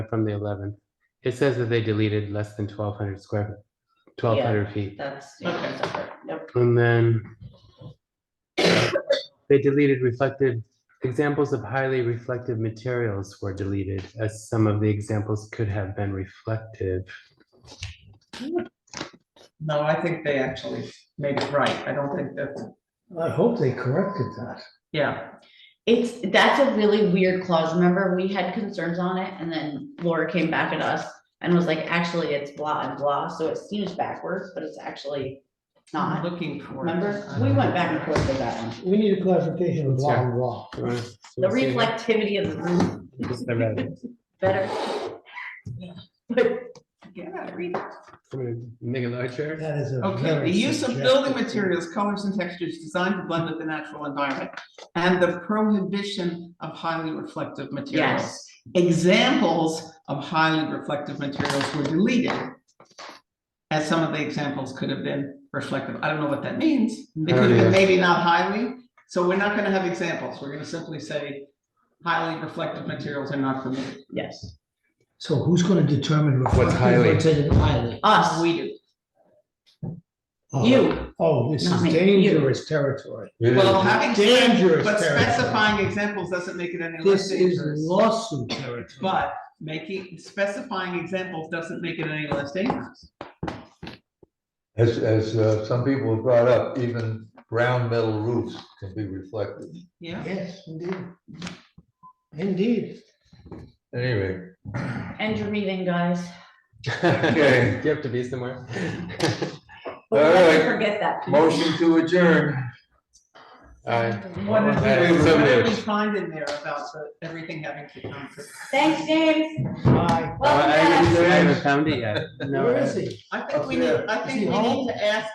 from the eleventh. It says that they deleted less than twelve hundred square, twelve hundred feet, That's, yeah, separate. Yep. and then they deleted reflective, examples of highly reflective materials were deleted, as some of the examples could have been reflective. No, I think they actually made it right. I don't think that, I hope they corrected that. yeah, It's, that's a really weird clause. Remember, we had concerns on it and then Laura came back at us and was like, actually, it's blah and blah, so it seems backwards, but it's actually I'm not. looking for. it. Remember, we went back and forth with that one. We need a clarification of blah Yeah. and blah. Do you wanna- do you The wanna say that? reflectivity of the roof, Just the red. better. But, Yeah, read it. I'm gonna Make it larger, That is a. Okay, very the use of building subjective- materials, colors and textures designed to blend with the natural environment and the prohibition of highly reflective materials. yes, Examples of highly reflective materials were deleted. As some of the examples could have been reflective. I don't know what that means. Oh, They could have either. been maybe not highly. So we're not gonna have examples. We're gonna simply say highly reflective materials are not permitted. yes, So who's gonna determine? reflective highly? versus highly? us, We do. Oh, you, Oh, this Not is me, you. dangerous territory. Well, having said, Dangerous but territory. specifying examples doesn't make it any less This is dangerous. lawsuit territory. But making, specifying examples doesn't make it any less dangerous. As, as uh, some people have brought up, even round metal roofs can be reflective. Yeah, Yes, indeed. Indeed. Anyway, end your meeting, guys. Okay. Do you have to be somewhere? But All let's right. Forget that. piece. motion to adjourn. Aye. what did Okay, we so what did we moved. find in there about the- everything having to come to? Thanks, James. Bye. Welcome I back. haven't I haven't found it yet. No, Where I- is he? I think we Up need, there. I Is he think we home? need to ask